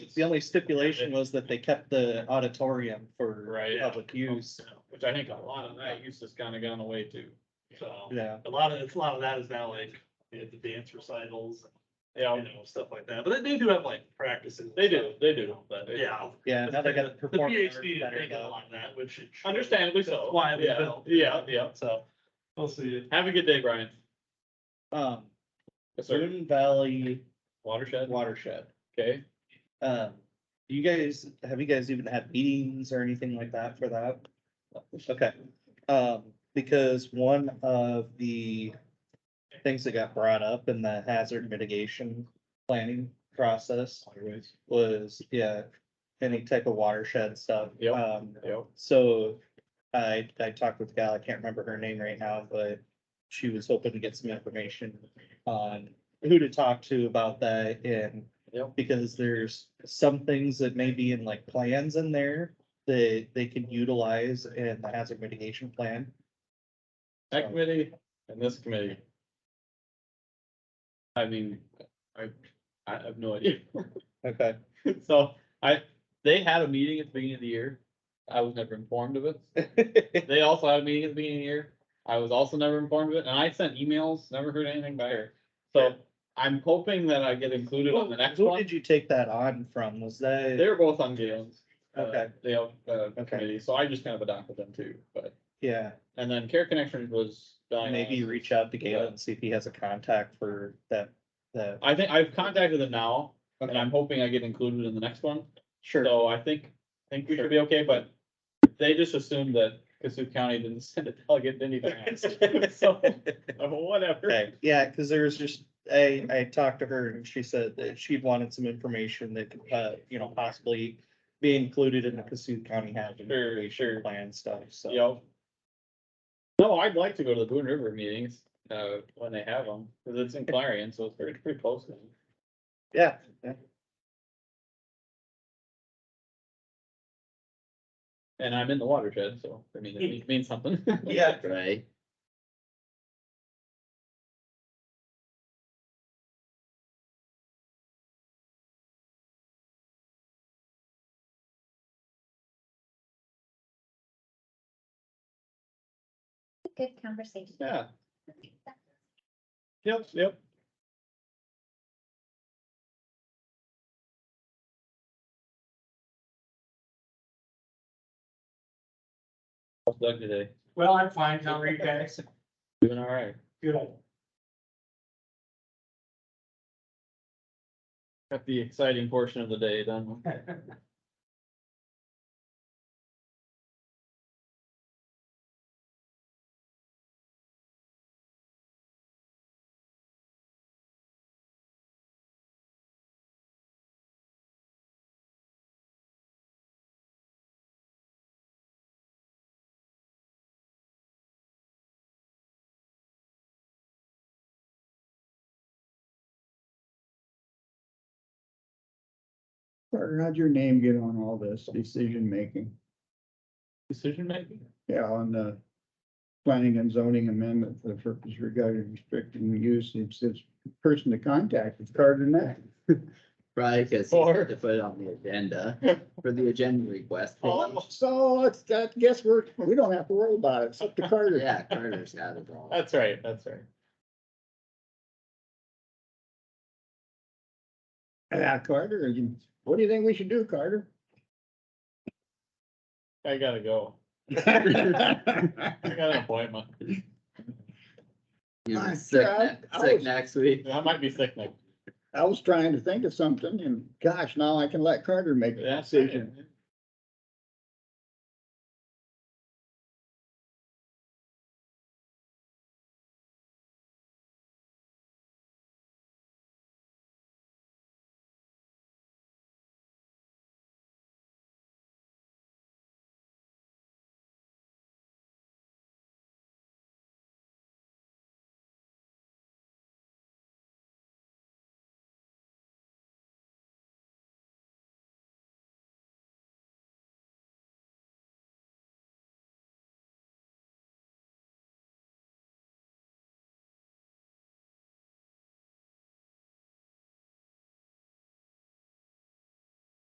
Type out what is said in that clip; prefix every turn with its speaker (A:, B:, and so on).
A: the only stipulation was that they kept the auditorium for
B: Right. Oh,
A: public use.
B: Which I think a lot of that use has kind of gone away too, so.
A: Yeah,
C: A lot of, it's a lot of that is now like, you know, the dance recitals, you
B: Yeah,
C: know, stuff like that, but they do have like practices. and
B: they do,
C: stuff.
B: they do, but.
C: Yeah.
A: yeah, now they got to
C: The
A: perform.
C: PhD, is
A: better
C: taking a
A: though.
C: lot of that, which. it should.
B: Understandably so.
C: That's Why we
B: Yeah,
C: built.
B: yeah, yeah.
C: So, we'll see.
B: Have a good day, Brian.
A: Um,
B: Yes, sir.
A: Boone Valley
B: Watershed,
A: watershed.
B: okay.
A: Um, do you guys, have you guys even had meetings or anything like that for that? Okay, um, because one of the things that got brought up in the hazard mitigation planning process was, yeah, any type of watershed stuff.
B: Yep.
A: Um,
B: Yep.
A: so I, I talked with a gal, I can't remember her name right now, but she was hoping to get some information on who to talk to about that and
B: Yep.
A: because there's some things that may be in like plans in there that they can utilize in the hazard mitigation plan.
B: That committee and this committee. I mean, I, I have no idea.
A: Okay.
B: So I, they had a meeting at the beginning of the year. I was never informed of it. They also had a meeting at the beginning of the year. I was also never informed of it, and I sent emails, never heard anything back. So I'm hoping that I get included on the next
A: Who
B: one.
A: did you take that on from? Was that,
B: They're both on Galen's. uh,
A: Okay.
B: Dale, uh,
A: Okay.
B: committee, so I just kind of adopted them too, but,
A: yeah,
B: and then Care Connections was. Diana.
A: maybe you reach out to Galen and see if he has a contact for that, that.
B: I think I've contacted them now, and
A: Okay.
B: I'm hoping I get included in the next one,
A: Sure.
B: so I think, I think we should be okay, but they just assumed that Cassup County didn't send a delegate to anything. So, uh, whatever.
A: Okay, yeah, because there was just, I, I talked to her and she said that she wanted some information that, could, uh, you know, possibly be included in the Cassuth County Hazard
B: Sure,
A: Mitigation Plan stuff, so.
B: Yep. No, I'd like to go to the Boone River meetings, uh, when they have them, because it's in Clarion, so it's pretty, pretty close. to me.
A: Yeah, yeah.
B: And I'm in the watershed, so, I mean, it means- means something.
A: Yeah.
B: Right.
D: Good conversation.
B: Yeah. Yep, yep. How's Doug today?
C: Well, I'm fine, how are you guys?
B: Doing all right.
C: Good.
B: Got the exciting portion of the day done.
E: Carter, how'd your name get on all this decision making?
B: Decision making?
E: Yeah, on the planning and zoning amendment for the purpose regarding restricting the use, it's this person to contact, it's Carter Neck.
F: Probably because he
B: Or-
F: had to put it on the agenda for the agenda request.
B: Oh.
E: So it's, I guess we're, we don't have to worry about it, it's up to Carter.
F: Yeah, Carter's got it all.
B: That's right, that's right.
E: Yeah, Carter, you- what do you think we should do, Carter?
B: I gotta go. I got an appointment.
F: You
E: I
F: know, sick,
E: tried.
F: ne-
E: I
F: sick
E: was-
F: next week.
B: I might be sick next.
E: I was trying to think of something and gosh, now I can let Carter make the
B: That's
E: decision.
B: it.